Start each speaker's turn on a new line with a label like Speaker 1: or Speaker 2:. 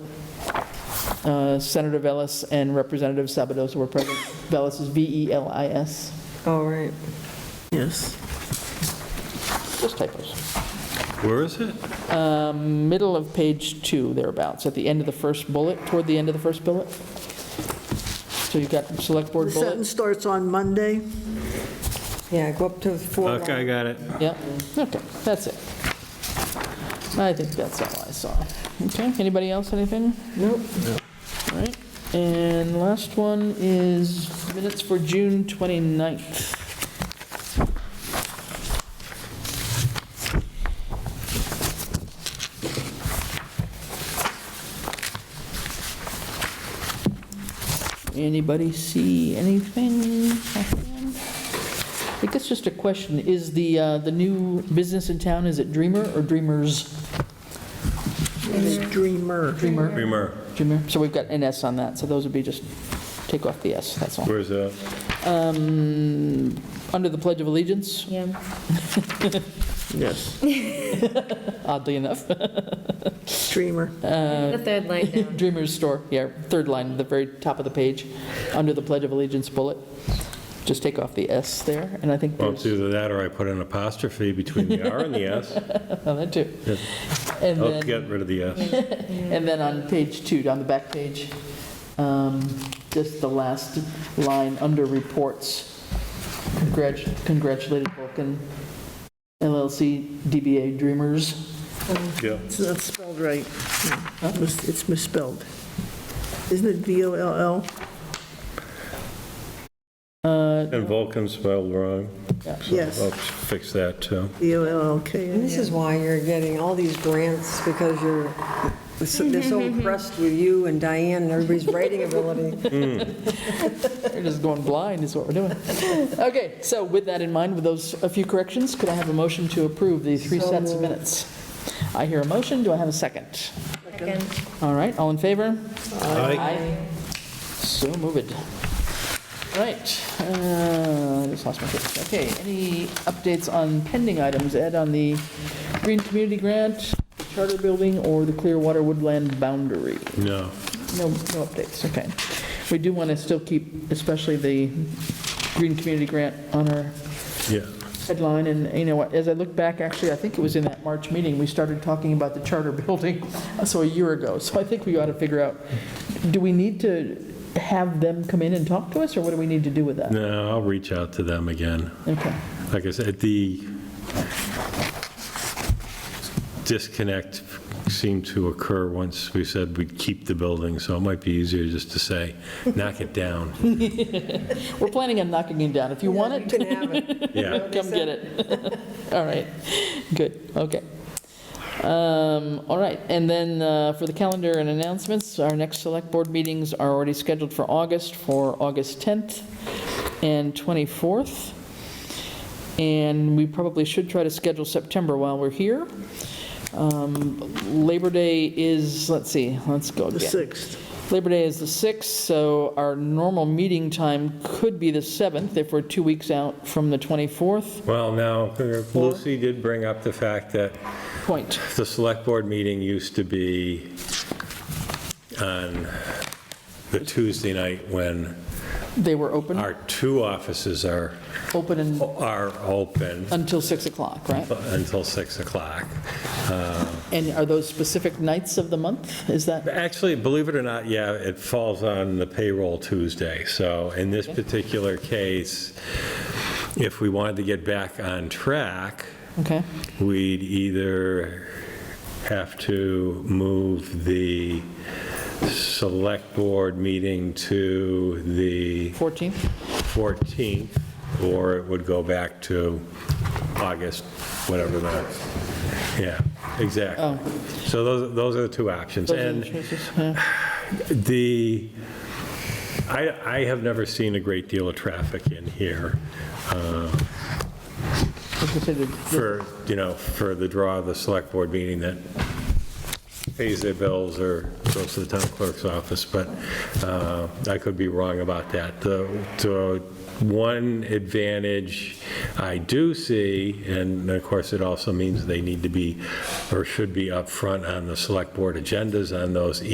Speaker 1: Uh, Senator Velis and Representative Sabados were present. Velis is E V-E-L-I-S,
Speaker 2: All Oh, right.
Speaker 3: Yes.
Speaker 1: just typos.
Speaker 4: Where is it?
Speaker 1: Um, Middle of page two, thereabouts, at the end of the first bullet, toward the end of the first bullet. So you've got select
Speaker 3: The
Speaker 1: board bullet.
Speaker 3: sentence starts on Monday.
Speaker 2: Yeah, go up to four.
Speaker 4: Okay, I got it.
Speaker 1: Yeah, okay, that's it. I think that's all I saw. Okay, anybody else, anything?
Speaker 2: Nope.
Speaker 1: All right, and last one is minutes for June 29th. Anybody see anything? offhand? I think it's just a question, is the, uh, the new business in town, is it Dreamer or Dreamers?
Speaker 3: It's Dreamer.
Speaker 1: Dreamer.
Speaker 4: Remer,
Speaker 1: Dreamer, so we've got an S on that, so those would be just, take off the S, that's all. Um,
Speaker 4: where's that?
Speaker 1: Under the Pledge of Allegiance,
Speaker 5: Yeah.
Speaker 3: Yes.
Speaker 1: oddly enough,
Speaker 3: Dreamer.
Speaker 5: The third line down.
Speaker 1: Dreamer's Store, yeah, third line, the very top of the page, under the Pledge of Allegiance bullet, just take off the S there, and I think
Speaker 4: Well, it's
Speaker 1: there's,
Speaker 4: either that or I put an apostrophe between the R and the S.
Speaker 1: oh, that too.
Speaker 4: Yeah.
Speaker 1: And
Speaker 4: I'll
Speaker 1: then,
Speaker 4: get rid of the S.
Speaker 1: and then on page two, on the back page, um, just the last line, under reports, Congrat- congratulated Vulcan LLC DBA Dreamers.
Speaker 4: Yeah.
Speaker 3: It's not spelled right. Mis- It's misspelled. Isn't it V-O-L-L?
Speaker 4: And Vulcan spelled wrong. so
Speaker 3: Yes.
Speaker 4: I'll fix that, too.
Speaker 2: And
Speaker 3: V-O-L-L-K?
Speaker 2: this is why you're getting all these grants, because you're, they're so impressed with you and Diane and everybody's writing ability.
Speaker 1: We're just going blind is what we're doing. Okay, so with that in mind, with those, a few corrections, could I have a motion to approve the three
Speaker 2: So
Speaker 1: sets of
Speaker 2: moved.
Speaker 1: minutes? I hear a motion, do I have a second?
Speaker 5: Second.
Speaker 1: All right, all in favor?
Speaker 4: Aye.
Speaker 1: So moved. All right, uh, just lost my place. Okay, any updates on pending items, Ed, on the Green Community Grant, Charter Building, or the Clearwater Woodland Boundary?
Speaker 4: No.
Speaker 1: No, no updates, okay. We do want to still keep, especially the Green Community Grant on our
Speaker 4: Yeah.
Speaker 1: headline, and, you know, as I look back, actually, I think it was in that March meeting, we started talking about the charter building, uh, so a year ago, so I think we ought to figure out, do we need to have them come in and talk to us, or what do we need to do with that?
Speaker 4: No, I'll reach out to them again.
Speaker 1: Okay,
Speaker 4: Like I said, the disconnect seemed to occur once we said we'd keep the building, so it might be easier just to say, knock it down.
Speaker 1: we're planning on knocking him down, if you want
Speaker 2: You
Speaker 1: it,
Speaker 2: can have it.
Speaker 4: Yeah.
Speaker 1: come get it. All right, good, okay. Um, All right, and then uh, for the calendar and announcements, our next Select Board meetings are already scheduled for August, for August 10th and 24th. And we probably should try to schedule September while we're here. Um, Labor Day is, let's see, let's go
Speaker 3: The
Speaker 1: again.
Speaker 3: 6th.
Speaker 1: Labor Day is the 6th, so our normal meeting time could be the 7th if we're two weeks out from the 24th.
Speaker 4: Well, now, Lucy did bring up the fact that
Speaker 1: Point.
Speaker 4: The select board meeting used to be on the Tuesday night when
Speaker 1: They were open,
Speaker 4: our two offices are,
Speaker 1: open and-
Speaker 4: are open
Speaker 1: until 6 o'clock, right?
Speaker 4: until 6 o'clock.
Speaker 1: And are those specific nights of the month? Is that,
Speaker 4: Actually, believe it or not, yeah, it falls on the payroll Tuesday. So in this particular case, if we wanted to get back on track,
Speaker 1: okay,
Speaker 4: we'd either have to move the select board meeting to the
Speaker 1: 14th?
Speaker 4: 14th, or it would go back to August, whatever that, yeah, exactly. So those, those are the two options.
Speaker 1: Oh. Those are
Speaker 4: And
Speaker 1: the choices, yeah.
Speaker 4: the, I, I have never seen a great deal of traffic in here
Speaker 1: I was gonna say the-
Speaker 4: for, you know, for the draw of the select board meeting that pays their bills or goes to the town clerk's office, but uh, I could be wrong about that. The, the one advantage I do see, and of course, it also means they need to be, or should be upfront on the select board agendas on those